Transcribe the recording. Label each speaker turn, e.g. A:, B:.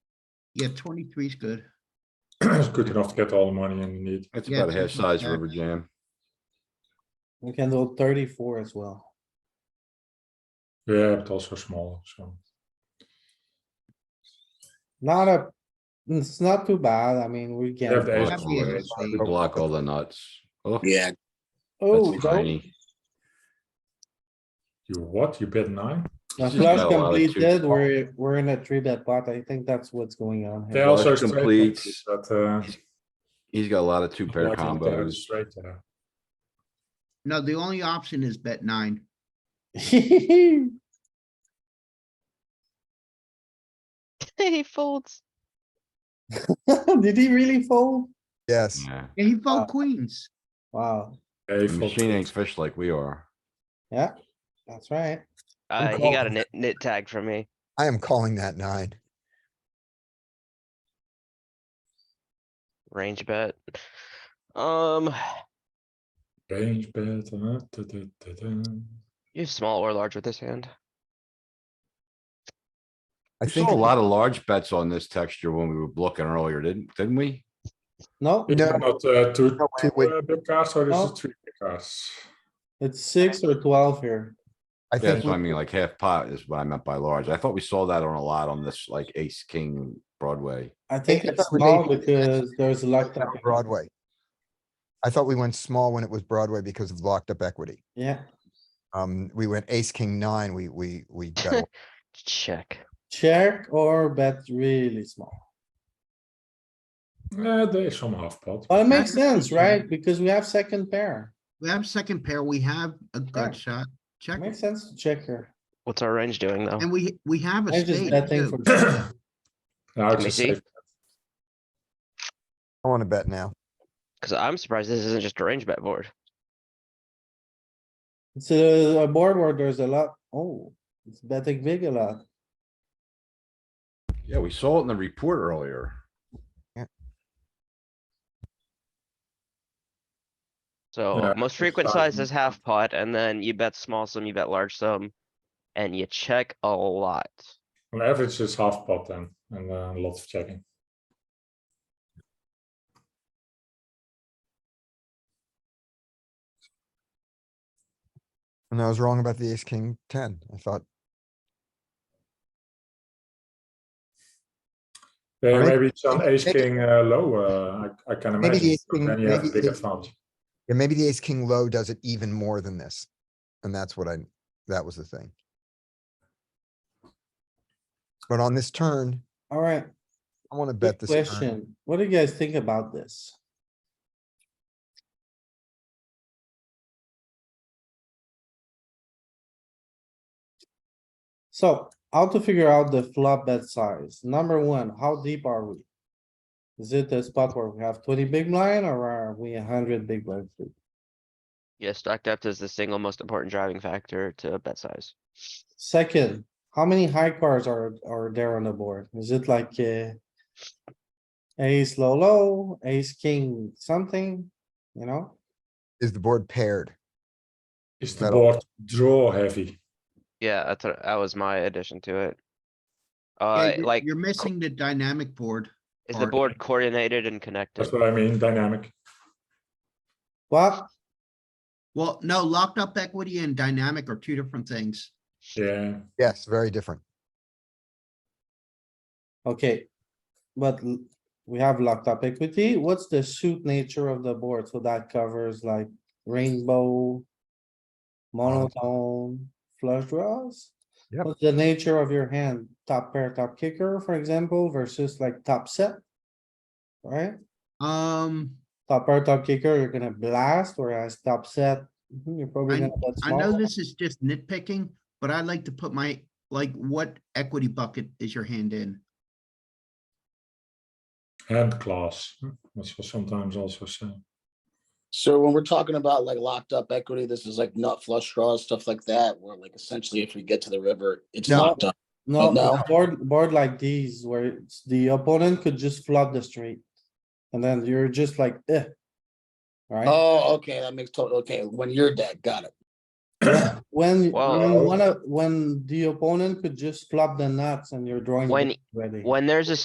A: Yeah, twenty-three is good.
B: It's good enough to get all the money in you need.
C: It's
A: Yeah,
C: about half
A: that's not
C: size
A: bad.
C: river jam.
D: We can do thirty-four as well.
B: Yeah, but also small, so.
D: Not a, it's not too bad. I mean, we
B: You have the
D: can.
B: ace
A: Might
B: queen,
A: be a
B: right?
A: good
B: So we
A: thing.
B: block-
C: Block all the nuts. Oh,
E: Yeah,
D: Oh,
C: that's
D: no.
C: tiny.
B: You what? You bet nine?
D: The
C: He's just
D: flush
C: got a lot of cute
D: completed, we're, we're in a three bet pot. I think that's what's going on
B: They
D: here.
C: Flush
B: also straight
C: completes.
B: bet, but, uh.
C: He's got a lot of two pair
B: unfortunately, they're
C: combos.
B: Straight uh, there.
A: No, the only option is bet nine.
F: He folds.
D: Did he really fold?
G: Yes,
C: Yeah,
A: Yeah, he
D: Uh,
A: fold queens.
D: Wow,
B: Yeah, he
C: the
B: fold-
C: machine ain't fish like we are.
D: that's right.
H: Uh, he got a nit, nit tag from me.
G: I am calling that nine.
H: Range bet. Um,
B: Range bet, uh, da, da, da, da.
H: you have small or large with this hand.
G: I
C: We saw
G: think,
C: a lot of large bets on this texture when we were looking earlier, didn't, didn't we?
D: No,
B: Is
G: No.
B: it Not, uh, two,
G: No, Oh. wait,
B: two
G: wait.
B: uh, big cards, or
D: No.
B: this is three big cards?
D: it's six or twelve here.
G: I
C: Yeah,
G: think,
C: that's what I
G: we-
C: mean, like half pot is what I meant by large. I thought we saw that on a lot on this like ace, king, Broadway.
D: I think
G: Hey, I
D: it's
G: thought we
D: small
G: made-
D: because there's locked up.
G: on Broadway. I thought we went small when it was Broadway because of locked up equity.
D: Yeah,
G: Um, we went ace, king, nine, we, we, we got,
H: Check.
D: check or bet really small.
B: Yeah, there is some half pot.
D: Well, it makes sense, right? Because we have second pair.
A: We have second pair. We have a
D: Sure.
A: gut shot. Check.
D: Makes sense to check here.
H: What's our range doing though?
A: And we, we have a
D: I just
A: spade too.
D: betting for.
B: Now
H: Can
B: it's
H: we
B: a
H: see?
B: safe,
G: I wanna bet now.
H: Cause I'm surprised this isn't just a range bet board.
D: It's uh, a a board where there's a lot, oh, it's betting big a lot.
C: Yeah, we saw it in the report earlier.
H: So
B: Yeah,
H: most frequent
B: size
H: size is half pot and then you bet small sum, you bet large sum. And you check a lot.
B: on average it's half pot then, and uh, a lot of checking.
G: And I was wrong about the ace, king, ten. I thought,
B: Yeah,
G: Alright.
B: maybe it's on ace,
G: Maybe-
B: king, uh, low, uh, I, I can
G: Maybe the
B: imagine,
G: ace king-
B: then you have a
G: maybe
B: big
G: the-
B: advantage.
G: yeah, maybe the ace, king low does it even more than this. And that's what I, that was the thing. But on this turn,
D: Alright,
G: I wanna bet
D: good
G: this. turn.
D: question. What do you guys think about this? So how to figure out the flop bet size? Number one, how deep are we? Is it a spot where we have twenty big blind or are we hundred big blind? deep?
H: Yeah, stack depth is the single most important driving factor to bet size.
D: Second, how many high cards are, are there on the board? Is it like, uh, ace low, low, ace king, something, you know?
G: Is the board paired?
B: Is the
G: Not all.
B: board draw heavy?
H: Yeah, that's, what- that was my addition to it.
A: Yeah,
H: Uh,
A: you're-
H: like,
A: You're missing the dynamic board.
H: is the
A: part.
H: board coordinated and connected?
B: That's what I mean, dynamic.
D: Well,
A: Well, no, locked up equity and dynamic are two different things.
B: Yeah,
G: Yes, very different.
D: okay, but l- we have locked up equity. What's the suit nature of the board? So that covers like rainbow, monotone, flush draws?
G: Yep.
D: What's the nature of your hand? Top pair, top kicker, for example, versus like top set? Right?
A: Um,
D: Top pair, top kicker, you're gonna blast, whereas top set, mhm, you're probably
A: I-
D: gonna bet
A: I know
D: small.
A: this is just nitpicking, but I like to put my, like, what equity bucket is your hand in?
B: hand class, hmm, which was sometimes also same.
E: so when we're talking about like locked up equity, this is like nut flush draws, stuff like that, where like essentially if we get to the river, it's
G: No.
E: locked up.
D: No,
E: no.
D: board, board like these where it's- the opponent could just flop the straight. And then you're just like, eh. Right?
E: Oh, okay, that makes total, okay, when you're dead, got it.
D: When,
H: Wow.
D: when one of, when the opponent could just flop the nuts and you're drawing.
H: When-
D: ready.
H: When there's a